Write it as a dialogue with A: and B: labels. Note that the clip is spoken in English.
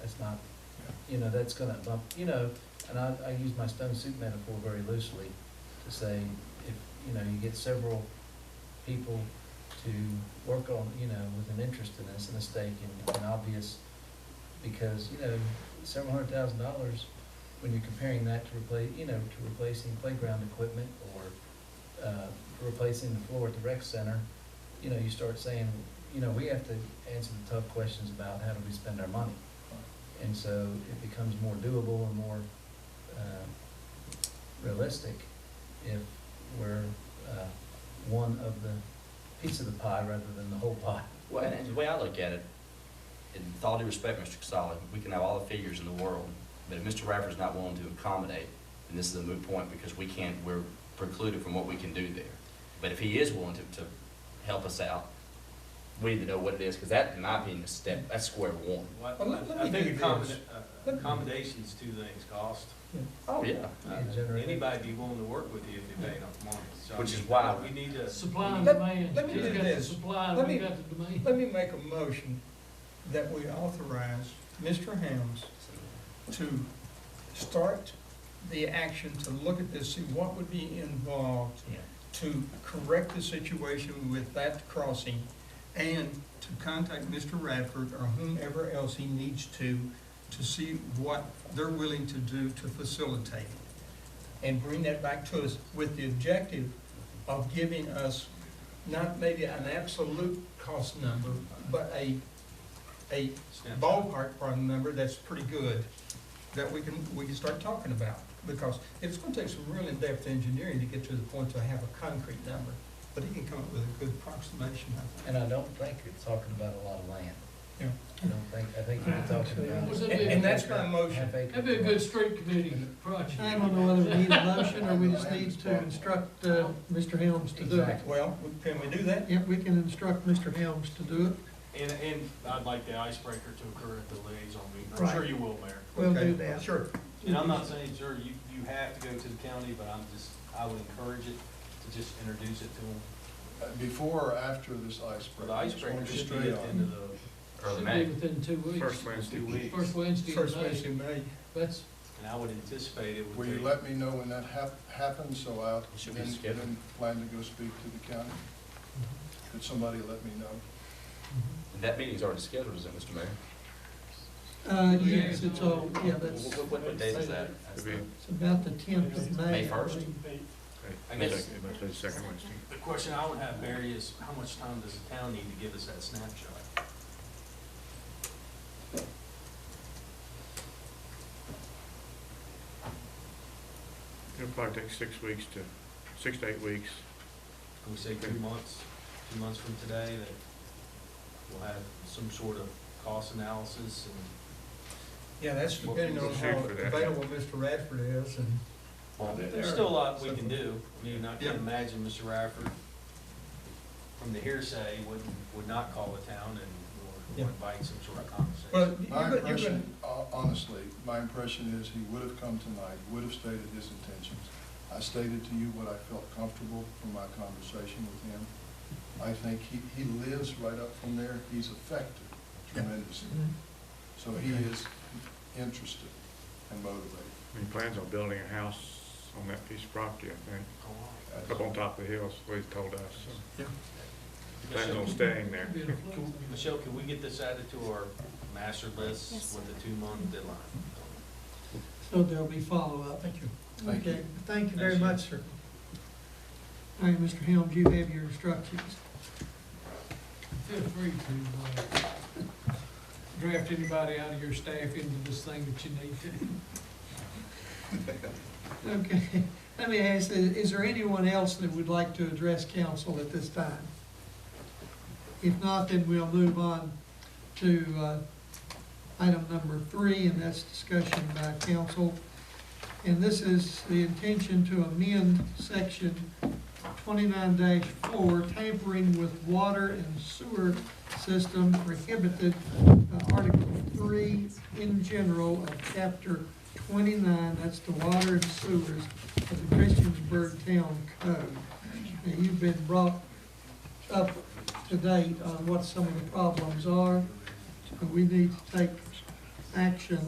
A: that's not, you know, that's gonna bump, you know, and I, I use my stone soup metaphor very loosely to say, if, you know, you get several people to work on, you know, with an interest in this, a stake and, and obvious, because, you know, several hundred thousand dollars, when you're comparing that to replace, you know, to replacing playground equipment or, uh, replacing the floor at the rec center, you know, you start saying, you know, we have to answer the tough questions about how do we spend our money? And so it becomes more doable and more uh, realistic if we're uh, one of the, piece of the pie rather than the whole pie.
B: Well, and the way I look at it, in with all due respect, Mr. Casali, we can have all the figures in the world, but if Mr. Rafferty's not willing to accommodate, then this is a moot point because we can't, we're precluded from what we can do there. But if he is willing to, to help us out, we need to know what it is, because that, in my opinion, is step, that's square one.
C: Well,
D: Well, let- let
C: I-
D: me
C: I
D: do
C: think
D: this.
C: accommoda-
D: Let
C: uh,
D: me-
C: accommodation's two things, cost.
B: Oh, yeah.
C: Uh,
A: Yeah, generally.
C: Anybody be willing to work with you if you pay enough money. So, I
B: Which is
C: mean,
B: why-
C: We need to.
E: Supply and
D: Let-
E: demand,
D: let me
E: he's
D: do
E: got the
D: this.
E: supply,
D: Let
E: and we
D: me-
E: got the demand.
D: Let me make a motion that we authorize Mr. Helms to start the action to look at this, see what would be involved
B: Yeah.
D: to correct the situation with that crossing and to contact Mr. Radford or whomever else he needs to, to see what they're willing to do to facilitate. And bring that back to us with the objective of giving us not maybe an absolute cost number, but a, a
C: Snapshot.
D: ballpark problem number that's pretty good, that we can, we can start talking about. Because it's gonna take some real in-depth engineering to get to the point to have a concrete number, but he can come up with a good approximation of
A: And I don't think you're talking about a lot of land.
D: Yeah.
A: I don't think, I think you're talking about.
E: And-
D: and that's my motion.
A: Half acre.
E: That'd be a good street committee project.
F: I don't know whether we need a motion or we just need to instruct, uh, Mr. Helms to do it.
D: it. Well, we- can we do that?
F: Yep, we can instruct Mr. Helms to do it.
C: And, and I'd like the icebreaker to occur at the liaison meeting. I'm
F: Right.
C: sure you will, Mayor.
F: We'll
D: Okay,
F: do that.
D: Sure.
C: And I'm not saying, sure, you, you have to go to the county, but I'm just, I would encourage it to just introduce it to them.
G: Uh, Before or after this icebreaker?
C: The icebreaker should be
G: Straight
C: at the end
G: on.
C: of the,
B: Early
E: Should
B: May.
E: be within two weeks.
H: First Wednesday.
C: two weeks.
E: First Wednesday in
D: First
E: May.
D: Wednesday in May.
E: That's,
C: and I would anticipate it
G: Will
C: would
G: you
C: be.
G: let me know when that hap- happens, so I'll
B: Should we
G: then,
B: schedule?
G: then plan to go speak to the county? Could somebody let me know?
B: And that meeting's already scheduled, is it, Mr. Mayor?
F: Uh, yes, it's all, yeah, that's,
B: What, what- what date is that? That's the-
F: it's about the tenth of May.
B: May first?
F: I believe.
C: I guess-
H: Second second Wednesday.
C: The question I would have, Barry, is how much time does the town need to give us that snapshot?
H: It'll probably take six weeks to, six to eight weeks.
C: Can we say two months, two months from today, that we'll have some sort of cost analysis and.
D: Yeah, that's depending on how
H: Shoot for that.
D: available Mr. Radford is and.
C: Well,
G: there-
C: there's still a lot we can do. I mean, I can imagine Mr. Radford, from the hearsay, would, would not call the town and
D: Yeah.
C: or invite some sort of conversation.
D: Well, you-
G: My
D: you're gonna- you're gonna,
G: impression, ho- honestly, my impression is he would have come tonight, would have stated his intentions. I stated to you what I felt comfortable from my conversation with him. I think he, he lives right up from there, he's affected tremendously. So he is interested and motivated.
H: I mean, He plans on building a house on that piece of property, I think, up on top of the hills, what he told us. so he Plans on staying there.
E: be a
C: Can- Michelle, can we get this added to our master list
I: Yes.
C: with the two-month deadline?
F: So there'll be follow-up.
D: thank you.
G: Thank you.
F: Okay, thank you very
C: Thank you.
F: much, sir. All right, Mr. Helms, you have your instructions.
E: feel free to, uh, draft anybody out of your staff into this thing that you need to.
F: Okay, let me ask, i- is there anyone else that would like to address council at this time? If not, then we'll move on to uh, item number three, and that's discussion by council. And this is the intention to amend section twenty-nine four, tampering with water and sewer system prohibited, uh, Article three in general of chapter twenty-nine, that's the water and sewers of the Christiansburg Town Code. Now, you've been brought up to date on what some of the problems are, but we need to take action